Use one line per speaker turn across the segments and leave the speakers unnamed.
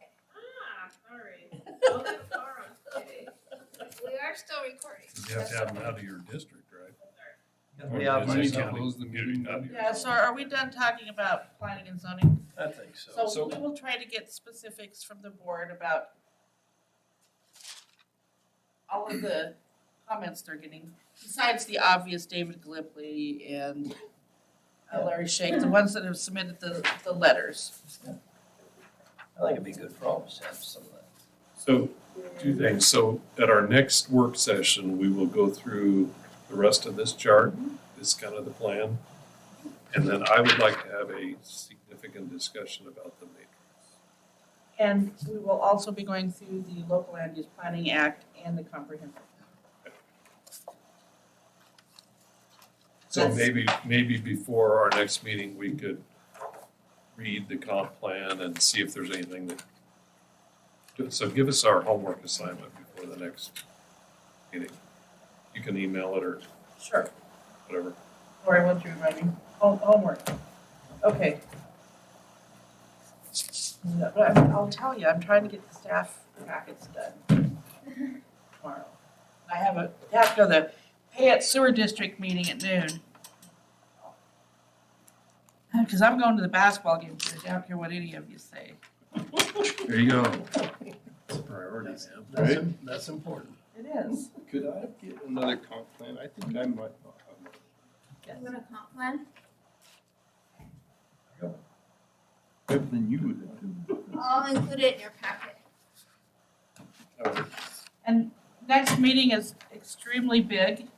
Ah, are still recording.
You have to have them out of your district, right?
We
Or
obviously
any
don't.
county.
Close the meeting.
Out of your-
Yeah, so are we done talking about planning and zoning?
I think so.
So
So-
we will try to get specifics from the board about all of the comments they're getting, besides the obvious David Glipley and uh, Larry Shake, the ones that have submitted the, the letters.
I think it'd be good for all of us to have some of that.
So, two things. So at our next work session, we will go through the rest of this chart, is kind of the plan. And then I would like to have a significant discussion about the matrix.
And we will also be going through the local land use planning act and the comprehensive.
So
That's-
maybe, maybe before our next meeting, we could read the comp plan and see if there's anything that. So give us our homework assignment before the next meeting. You can email it or
Sure.
whatever.
Lori, what's your reminding? Home, homework. Okay. No, but I'm- I'll tell you, I'm trying to get the staff packets done tomorrow. I have a, have to go to the Payette Sewer District meeting at noon. Uh, Cause I'm going to the basketball game, so I don't care what any of you say.
There you go.
Priorities.
Right?
That's important.
It is.
Could I get another comp plan? I think I might not have one.
You want a comp plan?
Better than you would.
I'll include it in your packet.
have.
And next meeting is extremely big.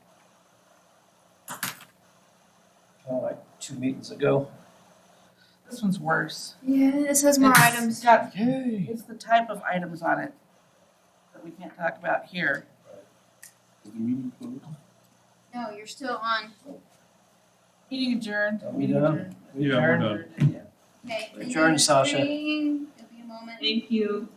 Uh, like two meetings ago.
This one's worse.
Yeah, this has more
It's
items.
got
Yay.
It's the type of items on it that we can't talk about here.
Is the meeting closed?
No, you're still on.
Meeting adjourned.
Are we done?
Yeah, we're done.
Adjourned.
Okay.
Adjourn, Sasha.
It'll be a moment.
Thank you.